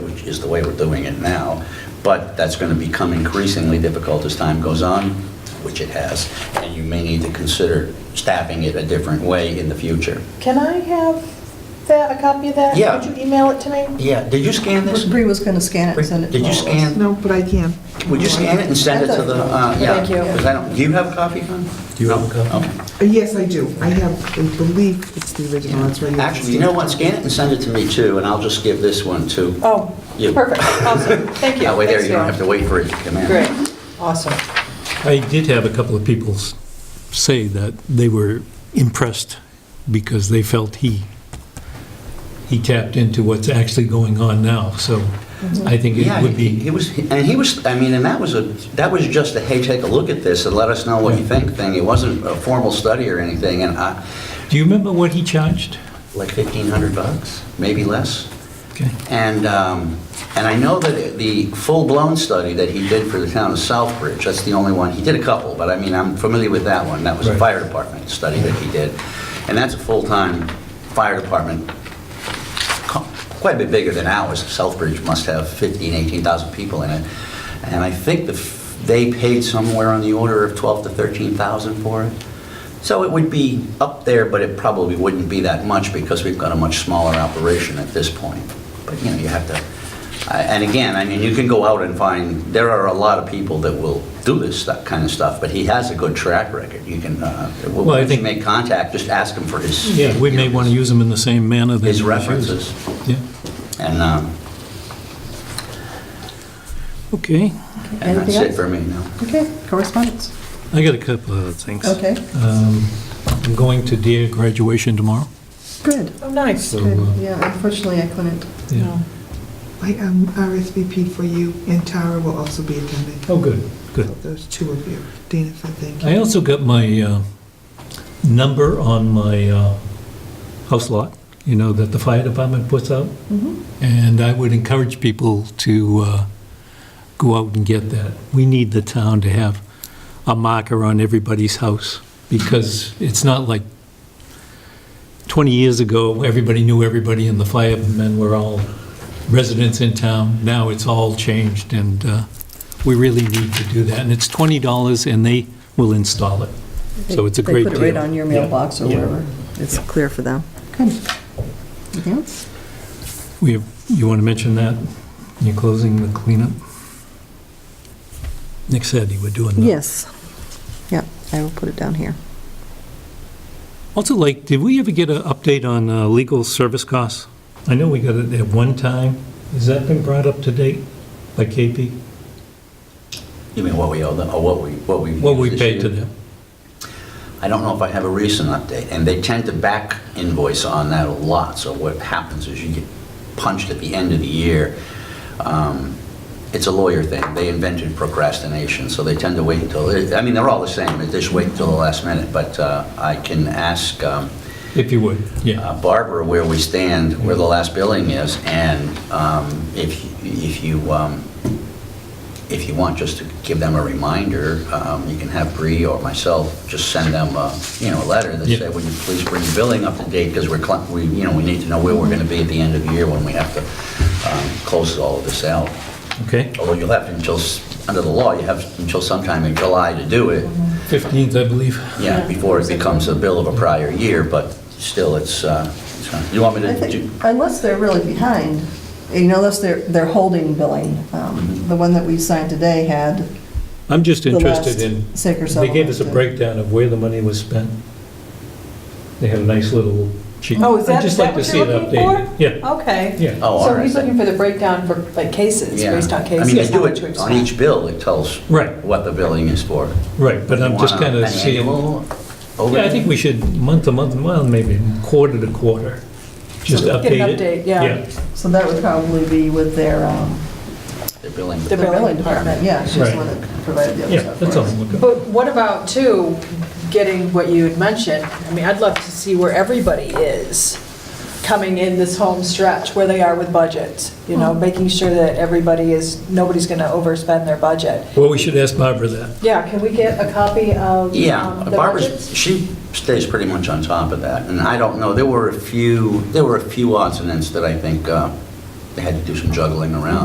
which is the way we're doing it now, but that's going to become increasingly difficult as time goes on, which it has, and you may need to consider staffing it a different way in the future. Can I have that, a copy of that? Yeah. Would you email it to me? Yeah, did you scan this? Bree was going to scan it and send it to Did all you of us. scan? No, but I can. Would you scan it and send it to the, uh, yeah? Thank you. 'cause I don't, do you have a copy, Con? Do you have a copy? Uh, Yes, I do. I have, I believe it's the original, that's right. Actually, you know what, scan it and send it to me too, and I'll just give this one to Oh, you. perfect, awesome, thank you. That way there, Thanks, you don't Sarah. have to wait for it to come in. Great, awesome. I did have a couple of people s- say that they were impressed because they felt he, he tapped into what's actually going on now, so I think Mm-hmm. Yeah, it would he be, he was, and he was, I mean, and that was a, that was just a, hey, take a look at this and let us know what you think thing. It wasn't a formal study or anything, and I, do you remember what he charged? like 1,500 bucks, maybe less. Okay. And, um, and I know that the full-blown study that he did for the town of Southbridge, that's the only one, he did a couple, but I mean, I'm familiar with that one. That was a Right. fire department study that he did. And that's a full-time fire department, co- quite a bit bigger than ours. Southbridge must have 15, 18,000 people in it. And I think the, f- they paid somewhere on the order of 12 to 13,000 for it. So it would be up there, but it probably wouldn't be that much because we've got a much smaller operation at this point. But, you know, you have to, I- and again, I mean, you can go out and find, there are a lot of people that will do this stu- kind of stuff, but he has a good track record. You can, uh, Well, I once you think- make contact, just ask him for his. Yeah, we may want to use him in the same manner that. His he was used. references. Yeah, And, um, okay. and that's Anything it for me, no. Okay, correspondence. I got a couple of other things. Okay, Um, I'm going to Deer graduation tomorrow, good, Oh, nice. so, good. uh, Yeah, unfortunately, I couldn't. yeah. I um, RSVP'd for you, and Tara will also be attending. Oh, good, good. So Those two of you. Dana said thank I you. also got my uh, number on my uh, house lot, you know, that the fire department puts out. And I would encourage people to uh, go out and get that. We need the town to have a marker on everybody's house because it's not like 20 years ago, everybody knew everybody and the firemen were all residents in town. Now it's all changed and uh, we really need to do that. And it's $20 and they will install it. So it's a great They deal. put it right on your Yeah. mailbox or Yeah. wherever. It's clear for them. Good. Anything else? We have, you want to mention that? You're closing the cleanup? Nick said you were doing that. Yes. Yeah, I will put it down here. Also, like, did we ever get an update on uh, legal service costs? I know we got it at one time. Has that been brought up to date by KP? You mean what we owe them, or what we, what we. What we used this paid to year? them? I don't know if I have a recent update, and they tend to back invoice on that a lot, so what happens is you get punched at the end of the year. Um, It's a lawyer thing, they invented procrastination, so they tend to wait until, I mean, they're all the same, they just wait until the last minute, but uh, I can ask um, If you would, yeah. uh, Barbara where we stand, where the last billing is, and um, if, if you, um, if you want, just to give them a reminder, um, you can have Bree or myself just send them, a, you know, a letter that Yeah. said, would you please bring your billing up to date, because we're, cl- we, you know, we need to know where we're going to be at the end of the year when we have to um, close all of this out. Okay. Although you'll have until, s- under the law, you have until sometime in July to do it, 15th, I believe. yeah, before it becomes a bill of a prior year, but still, it's, uh, it's not- you want me I to, think, do- unless they're really behind, you know, unless they're, they're holding billing. Um, The one that we signed today had I'm just the last interested in, sick or they gave us a settlement. breakdown of where the money was spent. They had a nice little sheet. Oh, is that, I'd is just that like to what see you're it looking updated. for? Yeah, Okay. yeah. oh, all So he's right. looking for the breakdown for, like, cases, Yeah. based on I mean, they cases, how do much we've it on spent. each bill, it tells Right. what the billing is for. Right, but I'm just You want kind an of seeing. annual over- Yeah, I think we should, month to month, well, maybe quarter to quarter, just Get an update it. update, yeah. So that would probably be with their, um, The billing. the The billing billing department. department, yeah, she's the one Right. that provided the Yeah, other yeah, stuff. that's for all us. I'm looking But what about, too, getting what you had mentioned? I mean, I'd love to see where everybody is coming in this home stretch, where they are with budgets, you know, making sure that everybody is, nobody's going to overspend their budget. Well, we should ask Barbara that. Yeah, can we get a copy of Yeah, um, the Barbara's, budgets? she stays pretty much on top of that, and I don't know, there were a few, there were a few odds and ends that I think uh, they had to do some juggling around.